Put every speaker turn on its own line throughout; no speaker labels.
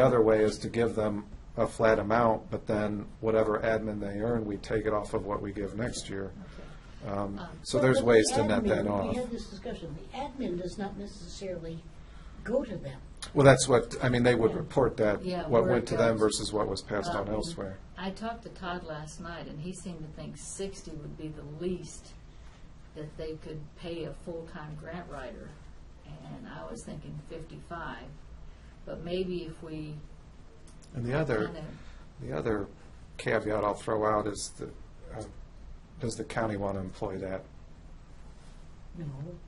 The other way is to give them a flat amount, but then whatever admin they earn, we take it off of what we give next year. Um, So
But-
there's
but
ways
the
to net that
admin,
off.
We had this discussion, the admin does not necessarily go to them.
Well, that's what, I mean, they would report that,
Yeah,
what
where
went
it
to them
goes.
versus what was passed on
Um,
elsewhere.
I talked to Todd last night, and he seemed to think sixty would be the least that they could pay a full-time grant writer, and I was thinking fifty-five. But maybe if we
And the other,
kind of,
the other caveat I'll throw out is that, uh, does the county want to employ that
No,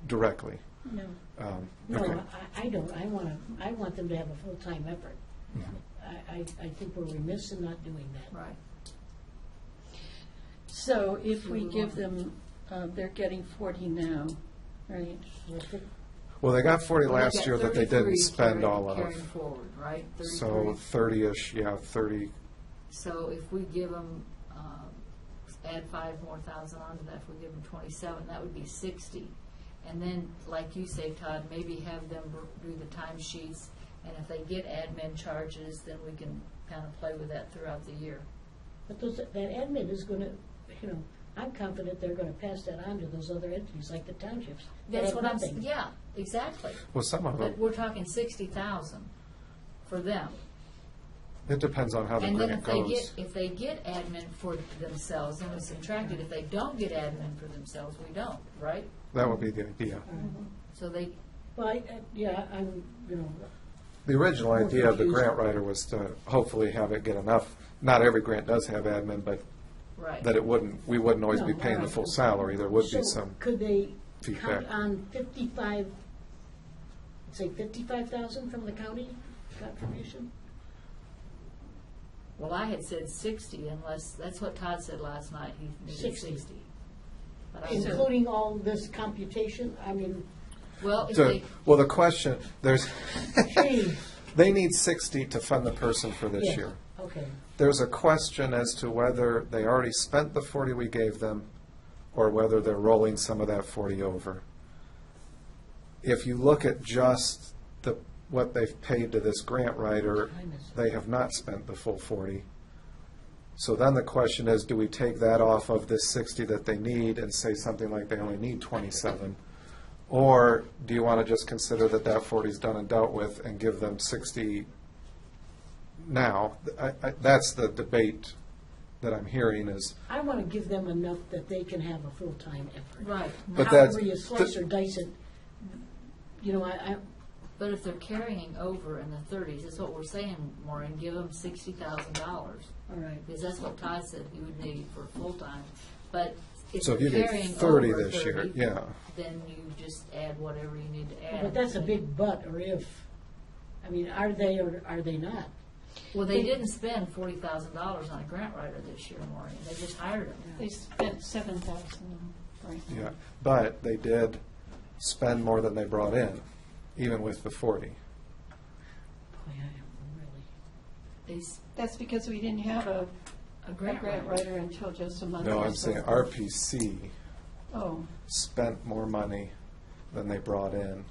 directly?
no.
Um, okay.
No, I, I don't, I want to, I want them to have a full-time effort. I, I, I think we're remiss in not doing that.
right,
So if we give them, uh, they're getting 40 now, right?
I think
Well, they got forty last
Like
year
at
that they didn't
33
spend
carrying-
all of.
Carrying forward, right?
So
33.
thirty-ish, yeah, thirty,
So if we give them, um, add five more thousand onto that, if we give them twenty-seven, that would be sixty. And then, like you say, Todd, maybe have them do the time sheets, and if they get admin charges, then we can kind of play with that throughout the year.
But those, that admin is going to, you know, I'm confident they're going to pass that on to those other entities, like the townships. that
That's
have
what I'm, s-
nothing.
yeah, exactly.
well, some of
But
them,
we're talking sixty thousand for them.
it depends on how the
And then
grant
if they get,
goes.
if they get admin for themselves, then we subtract it. If they don't get admin for themselves, we don't, right?
That would be the idea.
So they,
Well, I, I- yeah, I'm, you know,
The original
More
idea of the
confusing.
grant writer was to hopefully have it get enough, not every grant does have admin, but
right.
that it wouldn't, we wouldn't always be
No,
paying the
right.
full salary, there would be
So
some.
Could they
feedback.
count on fifty-five, say fifty-five thousand from the county contribution?
Well, I had said sixty unless, that's what Todd said last night, he needed
60.
sixty. But I said-
Including all this computation, I mean,
Well, if
So,
they,
well, the question, there's,
gee,
they need sixty to fund the person for this
yeah,
year.
okay.
There's a question as to whether they already spent the forty we gave them, or whether they're rolling some of that forty over. If you look at just the, what they've paid to this grant writer,
Time is-
they have not spent the full forty. So then the question is, do we take that off of this sixty that they need and say something like they only need twenty-seven? Or do you want to just consider that that forty's done and dealt with and give them sixty now? I, I, that's the debate that I'm hearing is,
I want to give them enough that they can have a full-time effort.
right,
But that-
However you slice or dice it, you know, I, I,
but if they're carrying over in the thirties, that's what we're saying, Maureen, give them sixty thousand dollars.
all right.
Because that's what Todd said he would need for full-time, but if
so
you're
if you
carrying
need
over
thirty
thirty.
this year, yeah.
Then you just add whatever you need to add.
But that's a big but or if. I mean, are they or are they not?
Well, they didn't spend forty thousand dollars on a grant writer this year, Maureen, they just hired him.
They spent 7,000 right now.
Yeah, but they did spend more than they brought in, even with the forty.
Boy, I am really.
They, s-
That's because we didn't have a
a
a
grant
grant
writer.
writer until just a month
No,
or
I'm
so
saying
ago.
RPC
Oh,
spent more money than they brought in,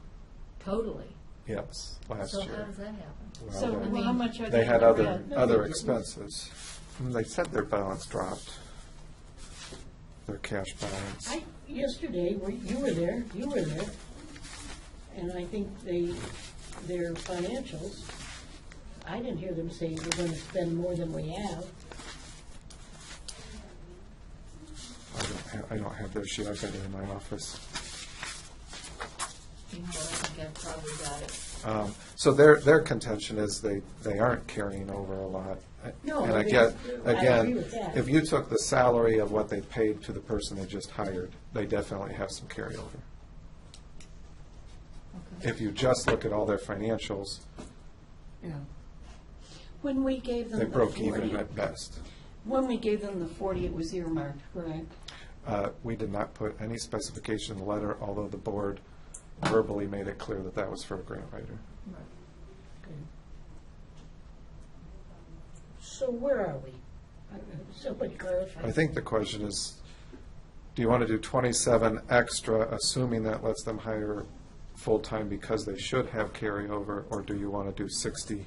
Totally.
yes, last
So how
year.
does that happen?
Well,
so
they-
well, how much are they?
They had
gonna
other, uh,
add?
other expenses. And They said their balance dropped, their cash balance.
I, yesterday, were- you were there, you were there, and I think they, their financials, I didn't hear them say we're gonna spend more than we have.
I don't have, I don't have their sheet, I've got it in my office.
You know, I think I probably got it.
Um, So their, their contention is they, they aren't carrying over a lot.
No,
And
I
again,
mean, I agree
again,
with that.
if you took the salary of what they paid to the person they just hired, they definitely have some carryover.
Okay.
If you just look at all their financials,
Yeah.
When we gave them
they
the
broke even
40
at best.
When we gave them the 40, it was earmarked, correct?
Uh, We did not put any specification in the letter, although the board verbally made it clear that that was for a grant writer.
Right.
So where are we? I- Uh, Somebody clarify.
I think the question is, do you want to do twenty-seven extra, assuming that lets them hire full-time because they should have carryover, or do you want to do sixty